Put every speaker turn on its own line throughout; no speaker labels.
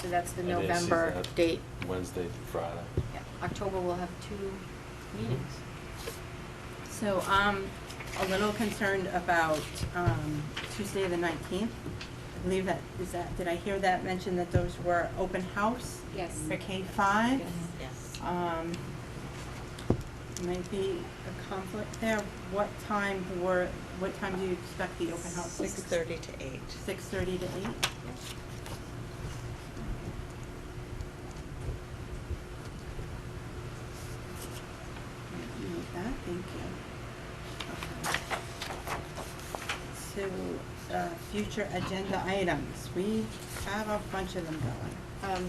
So that's the
I didn't see
November
that.
date.
Wednesday through Friday.
Yeah, October will have two meetings.
So I'm a little concerned about um, Tuesday, the 19th. I believe that, is that, did I hear that mention that those were open house?
Yes.
For K-5?
Yes.
Yes.
Um, Might be a conflict there. What time were, what time do you expect the open house?
Six thirty to eight.
6:30 to 8? Note that, thank you. Okay. So, uh, future agenda items, we have a bunch of them going.
Um,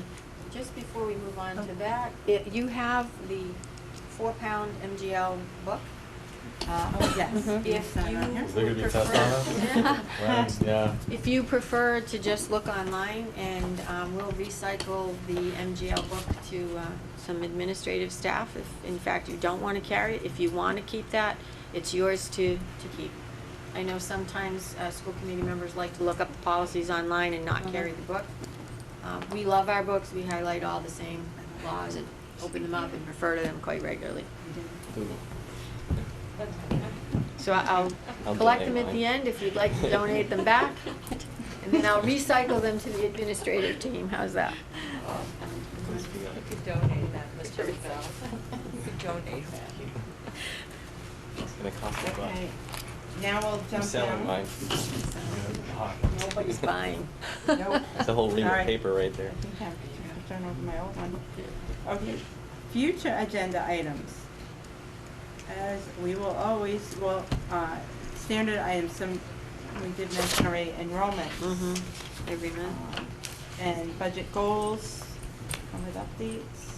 Just before we move on to
Oh.
that, i- you have the four-pound MGL book. Uh,
Oh, yes.
Mhm.
If
Yes, I know.
you
Is there gonna be a test
prefer-
on it? Right, yeah.
If you prefer to just look online, and um, we'll recycle the MGL book to uh, some administrative staff, if in fact you don't want to carry it, if you want to keep that, it's yours to, to keep. I know sometimes uh, school committee members like to look up the policies online and not carry the book. Um, We love our books, we highlight all the same laws and open them up and refer to them quite regularly. So I- I'll
I'll
collect them
donate
at the
mine.
end if you'd like to donate them back, and then I'll recycle them to the administrative team, how's that?
You could donate that, Mr. Bell. You could donate
It's gonna cost a buck.
Okay, now we'll
I'm
jump
selling
down.
mine.
Nobody's buying.
Nope.
It's a whole ream
All right.
of paper right there.
I think I've turned over my old one. Okay, future agenda items. As we will always, well, uh, standard items, some, we did mention already enrollment.
Mm-hmm, every month.
Um, And budget goals, come with updates.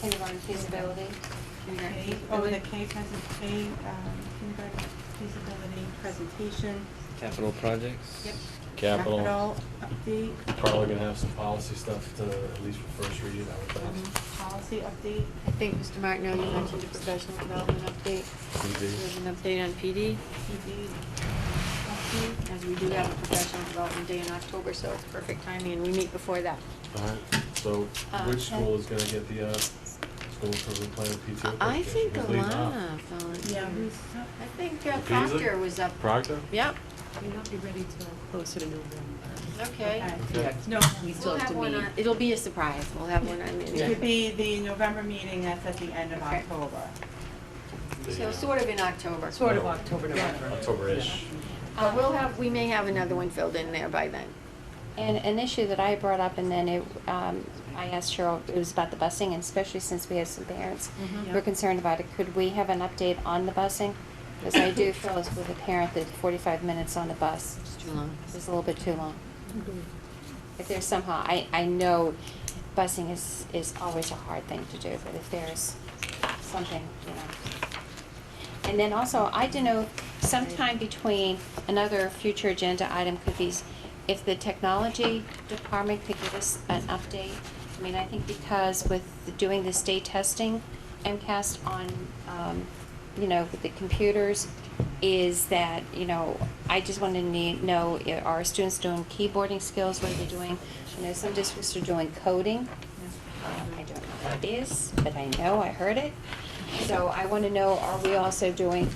Kindergarten feasibility.
K- Oh, the K present, K, um, kindergarten feasibility presentation.
Capital projects?
Yep.
Capital,
Capital update,
probably gonna have some policy stuff to, at least for first reading, I would think.
um, policy update.
I think, Mr. Martineau, you mentioned a professional development update. There's an update on PD,
PD.
as we do have a professional development day in October, so it's perfect timing, and we meet before that.
Alright, so
Uh,
which school is gonna get the, uh, school improvement plan of PTO?
I
presentation?
think
Who's leading off?
Alana
Yeah,
volunteered.
who's
I think uh,
Beasley?
Proctor was up.
Proctor?
Yep,
May not be ready till closer to November.
okay.
Okay.
No,
We
We'll
still have
have
to
one
meet.
on, it'll be a surprise, we'll have one on.
it could be the November meeting, that's at the end of
Okay.
October.
The,
So
uh,
sort of in October.
Sort of October, November.
October-ish.
Uh, we'll have, we may have another one filled in there by then.
And an issue that I brought up, and then it, um, I asked Cheryl, it was about the busing, and especially since we had some parents
Mhm.
who were concerned about it, could we have an update on the busing? Because I do feel as with a parent that forty-five minutes on the bus
It's too long.
is a little bit too long. If there's somehow, I, I know busing is, is always a hard thing to do, but if there's something, you know. And then also, I don't know, sometime between another future agenda item could be s- if the technology department could give us an update. I mean, I think because with doing the state testing, MCAS on, um, you know, with the computers, is that, you know, I just want to need, know, i- are students doing keyboarding skills, what are they doing? You know, some districts are doing coding. Um, I don't know what it is, but I know, I heard it. So I want to know, are we also doing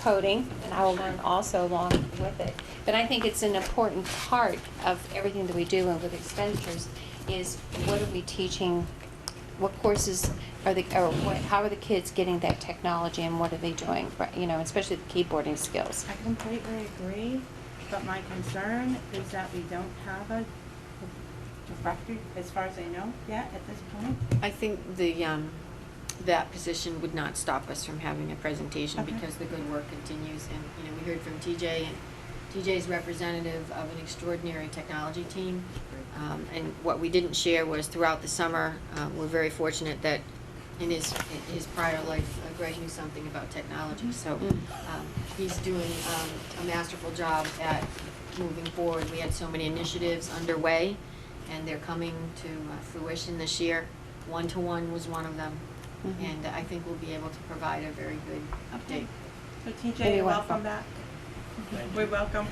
coding? And I will learn also along with it. But I think it's an important part of everything that we do and with expenditures is what are we teaching? What courses are the, or what, how are the kids getting that technology and what are they doing? Right, You know, especially the keyboarding skills.
I completely agree, but my concern is that we don't have a director, as far as I know, yet at this point.
I think the, um, that position would not stop us from having a presentation
Okay.
because the good work continues. And, you know, we heard from TJ and TJ's representative of an extraordinary technology team. Um, and what we didn't share was throughout the summer, uh, we're very fortunate that in his, in his prior life, uh, Greg knew something about technology. So,
Mm.
um, he's doing, um, a masterful job at moving forward. We had so many initiatives underway and they're coming to uh, fruition this year. One-to-one was one of them,
Mhm.
and I think we'll be able to provide a very good update.
So TJ,
Very
you're
well.
welcome back. We're welcome.